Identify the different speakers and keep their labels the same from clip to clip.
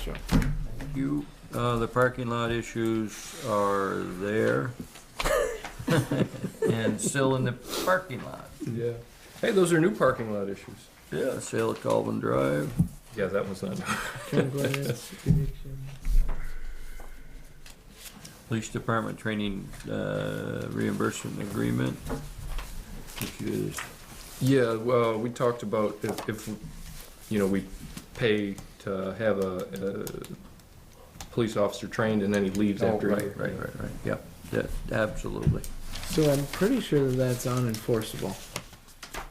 Speaker 1: Sure.
Speaker 2: You, uh, the parking lot issues are there. And still in the parking lot.
Speaker 1: Yeah. Hey, those are new parking lot issues.
Speaker 2: Yeah, sale of Calvin Drive.
Speaker 1: Yeah, that one's not.
Speaker 2: Police Department Training uh, Reimbursement Agreement, which is,
Speaker 1: Yeah, well, we talked about if, if, you know, we pay to have a, a police officer trained and then he leaves
Speaker 3: Oh,
Speaker 1: after. a
Speaker 3: right,
Speaker 1: year.
Speaker 2: right, right, right, yep, that, absolutely.
Speaker 3: So I'm pretty sure that that's unenforceable.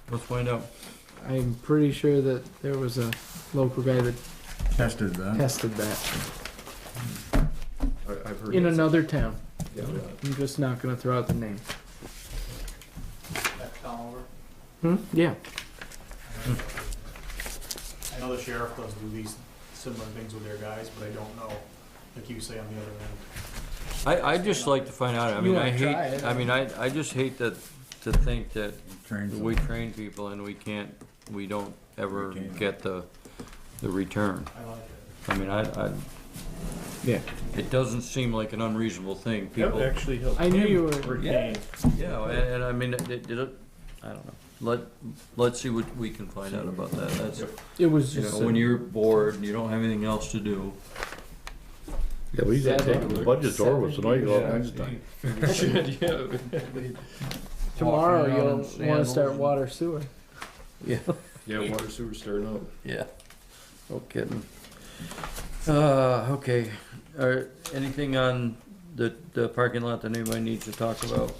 Speaker 2: Let's find out.
Speaker 3: I'm pretty sure that there was a local guy that
Speaker 4: Tested that.
Speaker 3: tested that
Speaker 1: I- I've heard.
Speaker 3: in
Speaker 1: that.
Speaker 3: another town.
Speaker 1: Yeah.
Speaker 3: I'm just not gonna throw out the name.
Speaker 5: That's Tom over.
Speaker 3: Hmm? Yeah.
Speaker 5: I know the sheriff does do these similar things with their guys, but I don't know, like you say on the other end.
Speaker 2: I, I'd just like to find out, I
Speaker 3: You
Speaker 2: mean, I
Speaker 3: wanna try
Speaker 2: hate,
Speaker 3: it.
Speaker 2: I mean, I, I just hate that, to think that
Speaker 4: Trains
Speaker 2: we
Speaker 4: them.
Speaker 2: train people and we can't, we don't ever
Speaker 4: We can't.
Speaker 2: get the, the return.
Speaker 5: I like it.
Speaker 2: I mean, I, I,
Speaker 3: Yeah.
Speaker 2: it doesn't seem like an unreasonable thing, people.
Speaker 5: actually helps.
Speaker 3: I knew you were.
Speaker 2: Yeah, yeah, and, and I mean, it, it, it- I don't know, let, let's see what we can find out about that, that's,
Speaker 3: It was
Speaker 2: you know,
Speaker 3: just.
Speaker 2: when you're bored and you don't have anything else to do.
Speaker 6: Yeah, we got to take the budget door was tonight, all
Speaker 1: Yeah.
Speaker 6: Wednesday.
Speaker 1: Yeah.
Speaker 3: Tomorrow
Speaker 2: Walking around in
Speaker 3: you'll want to
Speaker 2: sandals
Speaker 3: start
Speaker 2: and-
Speaker 3: water sewer.
Speaker 1: Yeah, water sewer stirring up.
Speaker 2: Yeah, no kidding. Uh, okay, are, anything on the, the parking lot that anybody needs to talk about?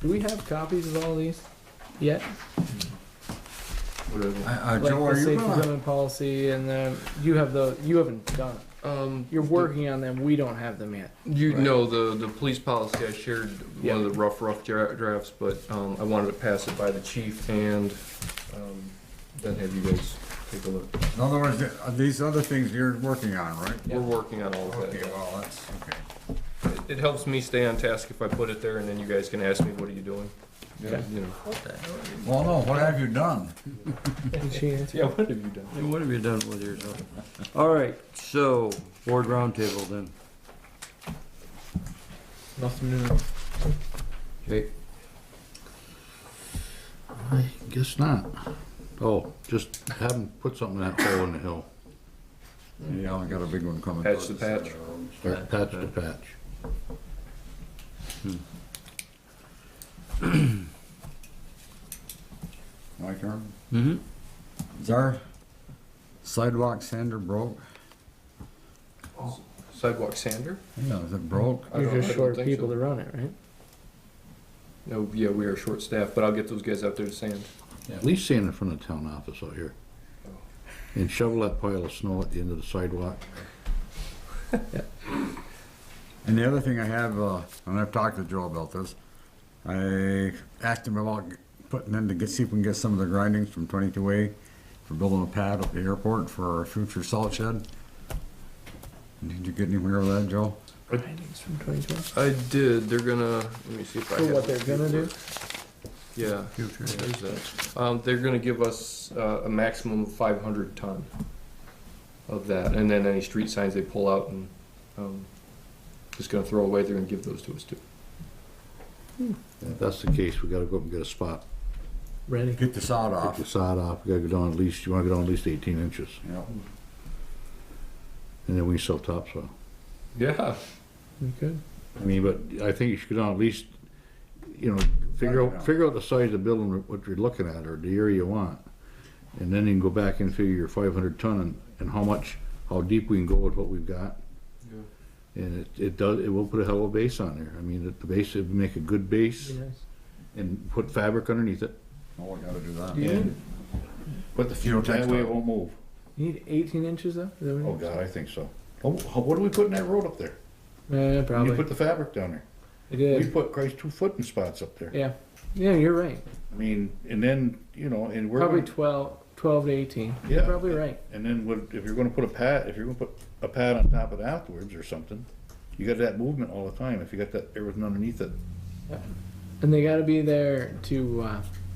Speaker 3: Do we have copies of all these yet?
Speaker 1: Whatever.
Speaker 4: Uh, uh,
Speaker 3: Like
Speaker 4: Joe,
Speaker 3: the
Speaker 4: are you
Speaker 3: safe
Speaker 4: gonna,
Speaker 3: development policy and the you have the you haven't done. it.
Speaker 1: Um,
Speaker 3: You're working on them. We don't have them yet.
Speaker 1: You
Speaker 4: Right.
Speaker 1: know, the, the police policy, I shared one of the rough, rough dra- drafts, but, um, I wanted to pass it by the chief and, um, then have you guys take a look.
Speaker 4: in other words, th- are these other things you're working on, right?
Speaker 1: We're working on all of
Speaker 4: Okay,
Speaker 1: that.
Speaker 4: well, that's, okay.
Speaker 1: It- It helps me stay on task if I put it there and then you guys can ask me, what are you doing? Yeah. You know.
Speaker 4: Well, no, what have you done?
Speaker 3: Did she answer?
Speaker 1: Yeah, what have you done?
Speaker 2: Hey, what have you done with yourself? All right, so, board roundtable then.
Speaker 3: Nothing new.
Speaker 2: Okay.
Speaker 6: I guess not. Oh, just have them put something in that hole in the hill,
Speaker 4: Yeah, I got a big one coming.
Speaker 1: Patch the patch.
Speaker 6: or patch to patch.
Speaker 4: Hmm. My turn.
Speaker 2: Mm-hmm.
Speaker 4: Is our sidewalk sander broke?
Speaker 1: Sidewalk sander?
Speaker 4: Yeah, is it broke?
Speaker 1: I don't-
Speaker 3: You're
Speaker 1: I
Speaker 3: just
Speaker 1: don't
Speaker 3: short
Speaker 1: think
Speaker 3: people
Speaker 1: so.
Speaker 3: to run it, right?
Speaker 1: No, yeah, we are short staffed, but I'll get those guys out there to sand.
Speaker 6: At least stand in front of the town office out here. And shovel that pile of snow at the end of the sidewalk.
Speaker 4: And the other thing I have, uh, and I've talked to Joe about this, I asked him about putting in to get, see if we can get some of the grindings from twenty-two A for building a pad at the airport for our future salt shed. Did you get anywhere with that, Joe?
Speaker 3: Writings from 2012.
Speaker 1: I did, they're gonna, let me see if I
Speaker 3: For
Speaker 1: have.
Speaker 3: what they're gonna do?
Speaker 1: Yeah. Future. Um, they're gonna give us, uh, a maximum of five hundred ton of that, and then any street signs they pull out and, um, just gonna throw away, they're gonna give those to us too.
Speaker 6: If that's the case, we gotta go up and get a spot,
Speaker 3: Ready.
Speaker 4: Get the sod
Speaker 6: take
Speaker 4: off.
Speaker 6: the sod off, we gotta go down at least, you wanna go down at least eighteen inches,
Speaker 4: Yep.
Speaker 6: and then we sell topsoil.
Speaker 1: Yeah.
Speaker 3: We good?
Speaker 6: I mean, but I think you should go down at least, you know, figure out, figure out the size of the building, what you're looking at, or the area you want. And then you can go back and figure your five hundred ton and, and how much, how deep we can go with what we've got. And it, it does, it will put a hell of a base on there. I mean, the- the base, it would make a good base
Speaker 3: Yes.
Speaker 6: and put fabric underneath it.
Speaker 4: Oh, we gotta do
Speaker 3: Do you
Speaker 4: that.
Speaker 3: need,
Speaker 6: But the
Speaker 4: fuel tank-
Speaker 6: That way it won't move.
Speaker 3: you need 18 inches though? Is that
Speaker 6: Oh,
Speaker 3: what
Speaker 6: God, I think so. Oh, how- what do we put in that road up there?
Speaker 3: you- Eh,
Speaker 6: You
Speaker 3: probably.
Speaker 6: put the fabric down there.
Speaker 3: I
Speaker 6: We
Speaker 3: did.
Speaker 6: put, Christ, two foot in spots up there.
Speaker 3: Yeah. Yeah, you're right.
Speaker 6: I mean, and then, you know, and we're.
Speaker 3: Probably
Speaker 6: gonna-
Speaker 3: 12, 12 to 18. You're
Speaker 6: Yeah.
Speaker 3: probably right.
Speaker 6: And then what, if you're gonna put a pad, if you're gonna put a pad on top of it afterwards or something, you got that movement all the time, if you got that, everything underneath it.
Speaker 3: And they got to be there to uh,